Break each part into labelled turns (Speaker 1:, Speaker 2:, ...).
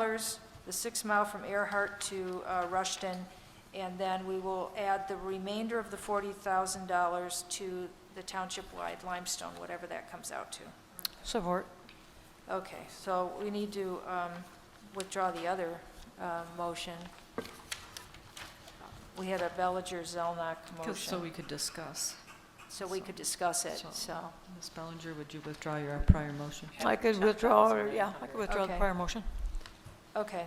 Speaker 1: dollars, the six mile from Earhart to uh, Rushton, and then we will add the remainder of the forty thousand dollars to the township-wide limestone, whatever that comes out to.
Speaker 2: Support.
Speaker 1: Okay, so we need to um, withdraw the other uh, motion. We had a Bellinger-Zelnok
Speaker 2: 'Cause- So
Speaker 1: motion,
Speaker 2: we could discuss.
Speaker 1: so we could discuss it,
Speaker 2: So-
Speaker 1: so,
Speaker 2: Ms. Bellinger, would you withdraw your prior motion?
Speaker 3: I could withdraw, or- yeah, I could withdraw the
Speaker 1: Okay.
Speaker 3: prior motion.
Speaker 1: okay,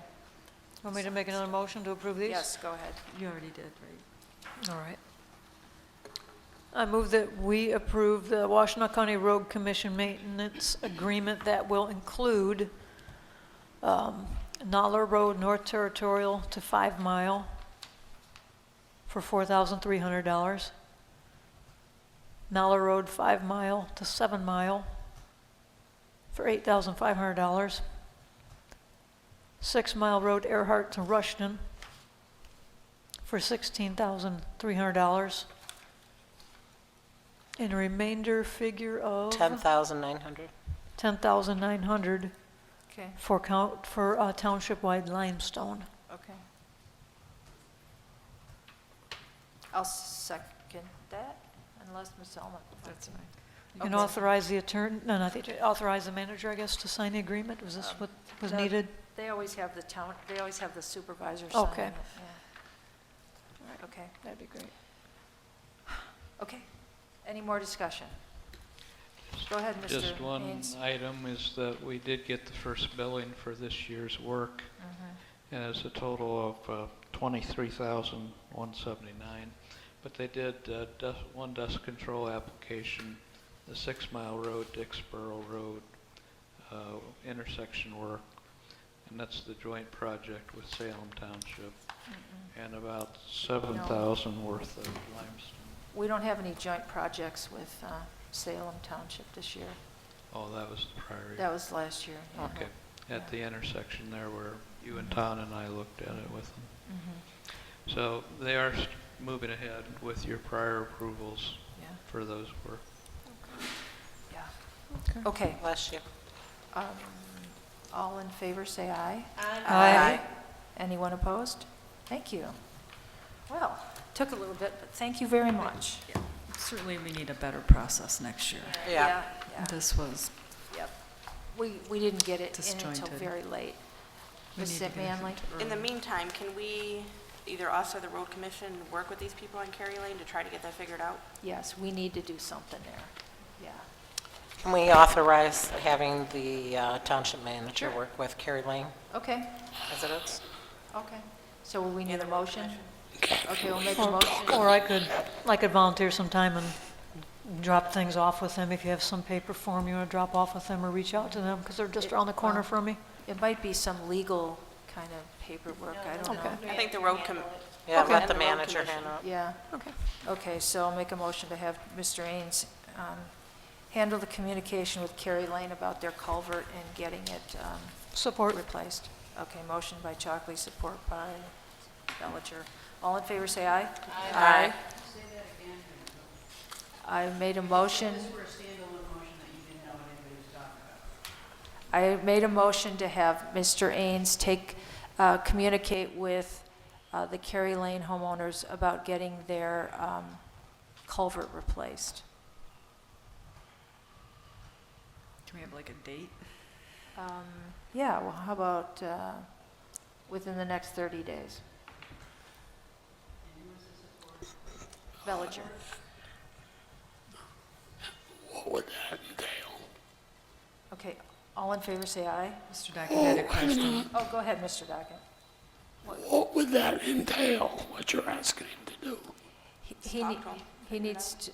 Speaker 3: Want me to make another motion to approve these?
Speaker 1: yes, go ahead.
Speaker 2: You already did, right?
Speaker 3: All right. I move that we approve the Washtenaw County Road Commission Maintenance Agreement that will include um, Noller Road North Territorial to Five Mile for $4,300. Noller Road Five Mile to Seven Mile for $8,500. Six Mile Road Earhart to Rushton for $16,300. And a remainder figure of?
Speaker 4: 10,900.
Speaker 3: $10,900
Speaker 1: Okay,
Speaker 3: for count, for uh, township-wide limestone.
Speaker 1: okay. I'll second that, unless Ms. Zelnok.
Speaker 2: That's fine.
Speaker 3: And
Speaker 1: Okay.
Speaker 3: authorize the attorney, no, not the attorney, authorize the manager, I guess, to sign the agreement? Was this
Speaker 1: Um,
Speaker 3: what was
Speaker 1: no,
Speaker 3: needed?
Speaker 1: They always have the town, they always have the supervisor sign
Speaker 3: Okay.
Speaker 1: it, yeah. Okay,
Speaker 3: That'd be great.
Speaker 1: okay. Any more discussion? Go ahead, Mr.
Speaker 5: Just one uh,
Speaker 1: Haynes.
Speaker 5: item is that we did get the first billing for this year's work,
Speaker 1: Mhm.
Speaker 5: and it's a total of uh, 23,179. But they did uh, dus- one dust control application, the Six Mile Road, Dixboro Road uh, intersection work, and that's the joint project with Salem Township, and about 7,000 worth of limestone.
Speaker 1: We don't have any joint projects with uh, Salem Township this year.
Speaker 5: Oh, that was the prior year.
Speaker 1: That was last year. yeah.
Speaker 5: Okay, at the intersection there where you and Ton and I looked at it with them.
Speaker 1: Mhm,
Speaker 5: So they are s- moving ahead with your prior approvals
Speaker 1: Yeah,
Speaker 5: for those work.
Speaker 1: yeah. Okay,
Speaker 4: Bless you.
Speaker 1: um, all in favor, say aye.
Speaker 3: Aye.
Speaker 1: Anyone opposed? Thank you. Well, took a little bit, but thank you very much.
Speaker 2: Certainly, we need a better process next year.
Speaker 4: Yeah.
Speaker 1: Yeah,
Speaker 2: This was,
Speaker 1: Yep. We, we didn't get it in until
Speaker 2: Disjointed.
Speaker 1: very late.
Speaker 2: we
Speaker 1: Ms.
Speaker 2: need to get
Speaker 1: Manley?
Speaker 2: it
Speaker 6: In the
Speaker 2: early.
Speaker 6: meantime, can we, either us or the road commission, work with these people on Kerry Lane to try to get that figured out?
Speaker 1: Yes, we need to do something there. Yeah.
Speaker 4: Can we authorize having the uh, township manager work with Carrie Lane
Speaker 1: Okay,
Speaker 4: as it is?
Speaker 1: okay. So we need a
Speaker 6: road
Speaker 1: motion? Okay, we'll make a
Speaker 3: Or
Speaker 1: motion.
Speaker 3: or I could, I could volunteer some time and drop things off with them if you have some paper form you want to drop off with them or reach out to them, because they're just around the corner from me.
Speaker 1: It might be some legal kind of paperwork, I don't know.
Speaker 3: Okay.
Speaker 6: I think the road com,
Speaker 4: Yeah,
Speaker 3: Okay.
Speaker 4: let
Speaker 6: And the
Speaker 4: the
Speaker 6: road
Speaker 4: manager
Speaker 6: commission.
Speaker 4: handle it.
Speaker 1: Yeah.
Speaker 3: Okay.
Speaker 1: Okay, so I'll make a motion to have Mr. Ains um, handle the communication with Carrie Lane about their culvert and getting it um,
Speaker 3: Support.
Speaker 1: replaced. Okay, motion by Chalkley, support by Bellinger. All in favor, say aye. Aye. I made a motion. I made a motion to have Mr. Ains take, uh, communicate with uh, the Kerry Lane homeowners about getting their um, culvert replaced.
Speaker 2: Can we have like a date?
Speaker 1: Um, Yeah, well, how about uh, within the next 30 days? Bellinger.
Speaker 7: What would that entail?
Speaker 1: Okay, all in favor, say aye.
Speaker 2: Mr. Dockett had a question.
Speaker 1: Oh, go ahead, Mr. Dockett.
Speaker 7: What would that entail, what you're asking him to do?
Speaker 1: He- He, ne- he needs to,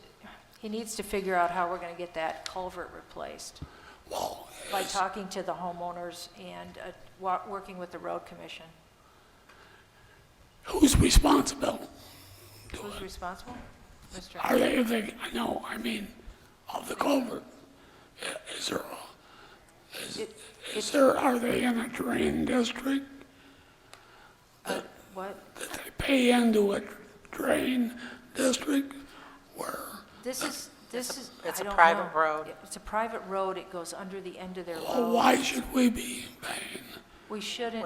Speaker 1: he needs to figure out how we're going to get that culvert replaced
Speaker 7: Well,
Speaker 1: by talking to the homeowners and uh, wa- working with the road commission.
Speaker 7: who's responsible?
Speaker 1: Who's responsible? Mr.
Speaker 7: Are they, they, I know, I mean, of the culvert, I- is there, a- is,
Speaker 1: It-
Speaker 7: is there, are they in a drain district?
Speaker 1: What?
Speaker 7: That they pay into a drain district where,
Speaker 1: This is, this is,
Speaker 4: it's
Speaker 1: I
Speaker 4: a
Speaker 1: don't
Speaker 4: private
Speaker 1: know.
Speaker 4: road.
Speaker 1: Yeah, It's a
Speaker 7: Oh,
Speaker 1: private road, it goes under the end of their
Speaker 7: well,
Speaker 1: road.
Speaker 7: why should we be paying?
Speaker 1: We shouldn't,